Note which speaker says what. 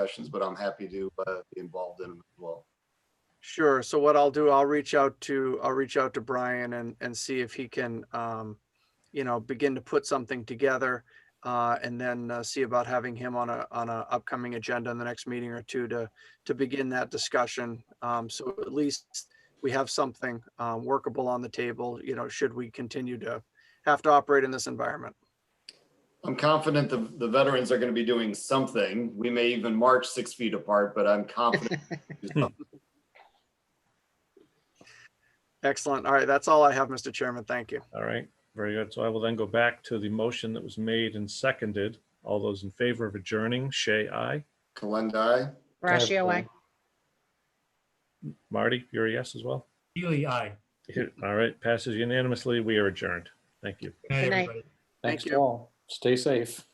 Speaker 1: discussions, but I'm happy to uh, be involved in them as well.
Speaker 2: Sure. So what I'll do, I'll reach out to, I'll reach out to Brian and, and see if he can, um, you know, begin to put something together. Uh, and then uh, see about having him on a, on a upcoming agenda in the next meeting or two to, to begin that discussion. Um, so at least we have something, uh, workable on the table, you know, should we continue to have to operate in this environment.
Speaker 1: I'm confident the, the veterans are going to be doing something. We may even march six feet apart, but I'm confident.
Speaker 2: Excellent. All right. That's all I have, Mr. Chairman. Thank you.
Speaker 3: All right, very good. So I will then go back to the motion that was made and seconded. All those in favor of adjourning, Shay, aye.
Speaker 1: Kalendai,
Speaker 4: Ratio I.
Speaker 3: Marty, you're a yes as well?
Speaker 5: Ely, aye.
Speaker 3: All right, passes unanimously. We are adjourned. Thank you.
Speaker 5: Good night,
Speaker 4: night.
Speaker 5: everybody.
Speaker 2: Thank
Speaker 6: Thanks
Speaker 2: you.
Speaker 6: all. Stay safe.